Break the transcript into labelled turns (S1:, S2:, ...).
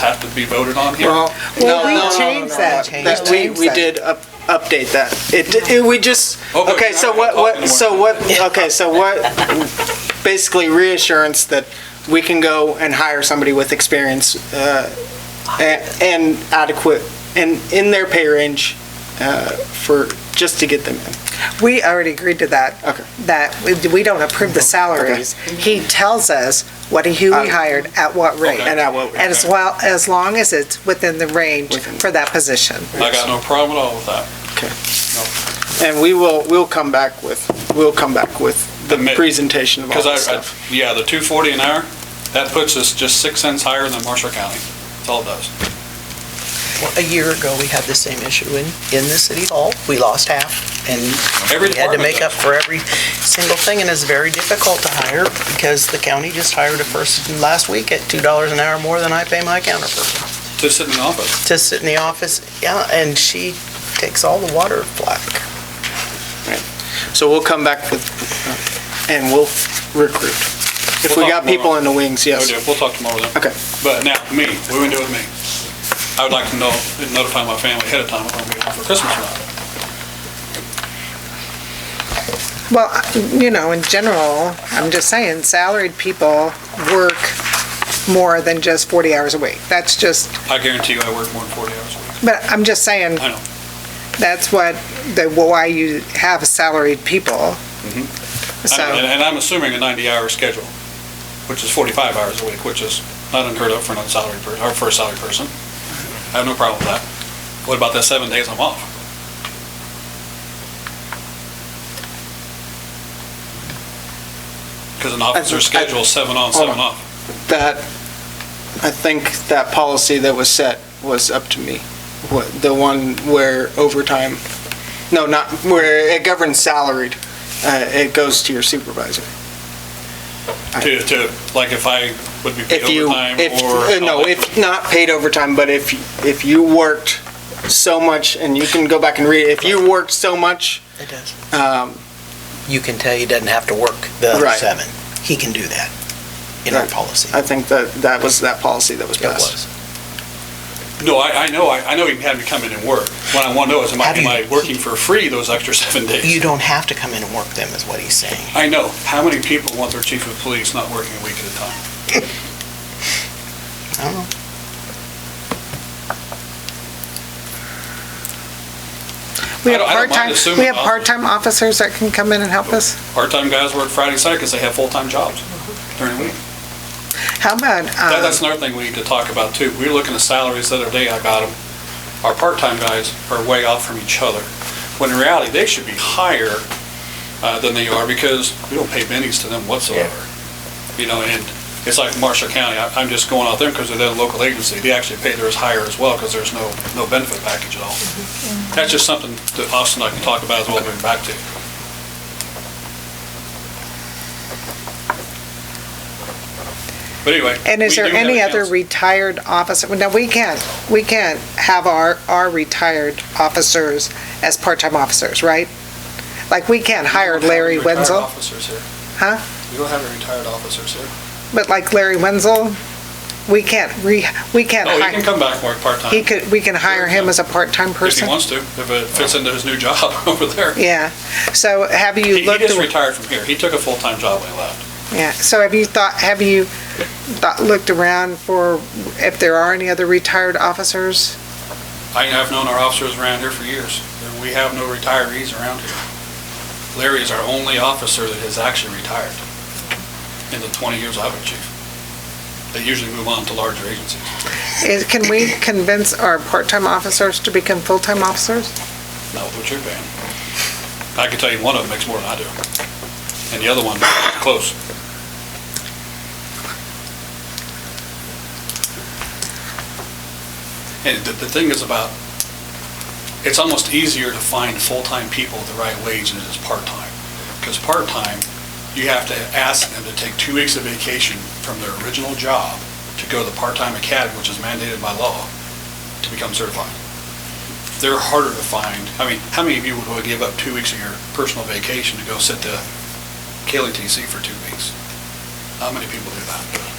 S1: have to be voted on here?
S2: Well,
S3: Well,
S2: no,
S3: we
S2: no, no,
S3: changed
S2: no,
S3: that.
S2: that.
S3: We
S2: We,
S3: changed
S2: we
S3: that.
S2: did up- update that. It, it- we just,
S1: Oh, but
S2: okay,
S1: you're
S2: so
S1: not
S2: what,
S1: gonna talk
S2: what, so
S1: anymore.
S2: what, okay, so what, basically reassurance that we can go and hire somebody with experience uh, a- and adequate, and in their pay range uh, for, just to get them in.
S3: We already agreed to that.
S2: Okay.
S3: That, we- we don't approve the salaries. He tells us what he, who
S2: Uh,
S3: he hired, at what rate.
S1: Okay.
S2: And at what rate.
S3: As well, as long as it's within the range
S2: Within.
S3: for that position.
S1: I got no problem at all with that.
S2: And we will, we'll come back with, we'll come back with the
S1: Admit-
S2: presentation of all
S1: Because
S2: this
S1: I, I-
S2: stuff.
S1: yeah, the 240 an hour, that puts us just six cents higher than Marshall County. That's all it does.
S4: Well, A year ago, we had the same issue in, in the city hall. We lost half, and
S1: Every
S4: we had to
S1: department
S4: make up
S1: does.
S4: for every single thing, and it's very difficult to hire, because the county just hired a person last week at two dollars an hour more than I pay my counterpart
S1: Just sit in the office.
S4: to sit in the office, yeah, and she takes all the water flack.
S2: So we'll come back with, uh, and we'll recruit. If we
S1: We'll
S2: got
S1: talk more
S2: people
S1: about-
S2: in the wings,
S1: We'll
S2: yes.
S1: do- We'll talk tomorrow then.
S2: Okay.
S1: But now, me, what are we gonna do with me? I would like to know, notify my family ahead of time if I'm gonna be home for Christmas or not.
S3: Well, I- you know, in general, I'm just saying, salaried people work more than just 40 hours a week. That's just,
S1: I guarantee you I work more than 40 hours a week.
S3: but I'm just saying,
S1: I know.
S3: that's what, the why you have salaried people.
S1: Mm-hmm. I- And
S3: So,
S1: and I'm assuming a 90-hour schedule, which is 45 hours a week, which is not unheard of for an unsalaried, per- or for a salaried person. I have no problem with that. What about the seven days I'm off? Because an officer's
S2: I-
S1: schedule is seven on,
S2: Hold
S1: seven
S2: on.
S1: off.
S2: That, I think that policy that was set was up to me. What, the one where overtime, no, not, where it governs salaried, uh, it goes to your supervisor. I-
S1: To, to, like if I would be paid
S2: If you,
S1: overtime
S2: if,
S1: or.
S2: uh, no, if not paid overtime, but if, if you worked so much, and you can go back and read, it, if you worked so much,
S4: It does.
S2: um,
S4: You can tell he doesn't have to work the other
S2: Right.
S4: seven. He can do that in our
S2: Right.
S4: policy.
S2: I think that, that was that policy that was
S4: It
S2: passed.
S4: was.
S1: No, I, I know, I I know you can have me come in and work. What I want to know is, am I,
S4: Have
S1: am
S4: you-
S1: I working for free those extra seven days?
S4: You don't have to come in and work them, is what he's saying.
S1: I know. How many people want their chief of police not working a week at a time?
S4: I don't know.
S3: we
S1: I
S3: have
S1: don't- I don't mind
S3: part-time, we
S1: assuming
S3: have
S1: officers.
S3: part-time officers that can come in and help us.
S1: Part-time guys work Friday, Saturday because they have full-time jobs during the week.
S3: How about,
S1: That-
S3: um,
S1: That's another thing we need to talk about too. We were looking at salaries the other day, I got them. Our part-time guys are way off from each other, when in reality, they should be higher uh, than they are because we don't pay pennies to them whatsoever. You know, and it's like Marshall County, I- I'm just going out there because they're a local agency. They actually pay theirs higher as well because there's no, no benefit package at all.
S3: Mm-hmm.
S1: That's just something that Austin and I can talk about as well, going back to. But anyway.
S3: and is
S1: we
S3: there
S1: do have
S3: any
S1: a
S3: other
S1: council.
S3: retired officer? No, we can't, we can't have our, our retired officers as part-time officers, right? Like, we can't hire Larry Wenzel,
S1: officers here.
S3: Huh?
S1: We don't have any retired officers here.
S3: but like Larry Wenzel, we can't re, we can't
S1: Oh, he can
S3: hire,
S1: come back and work part-time
S3: he
S1: if
S3: could, we can hire him as a part-time
S1: he
S3: person?
S1: wants to, if it fits into his new job over there.
S3: Yeah, so have
S1: He
S3: you
S1: he
S3: looked?
S1: just
S3: at-
S1: retired from here. He took a full-time job when he left.
S3: Yeah, so have you thought, have you thought, looked around for if there are any other retired officers?
S1: I have known our officers around here for years. and We have no retirees around here. Larry is our only officer that has actually retired in the 20 years I've been chief. They usually move on to larger agencies.
S3: Is, can we convince our part-time officers to become full-time officers?
S1: Not with what you're paying. I can tell you one of them makes more than I do. And the other one, close. And the, the thing is about, it's almost easier to find full-time people at the right wage than it is part-time. Because part-time, you have to ask them to take two weeks of vacation from their original job to go to the part-time academy, which is mandated by law, to become certified they're harder to find. I mean, how many of you would want to give up two weeks of your personal vacation to go sit the KLTC for two weeks? How many people do that?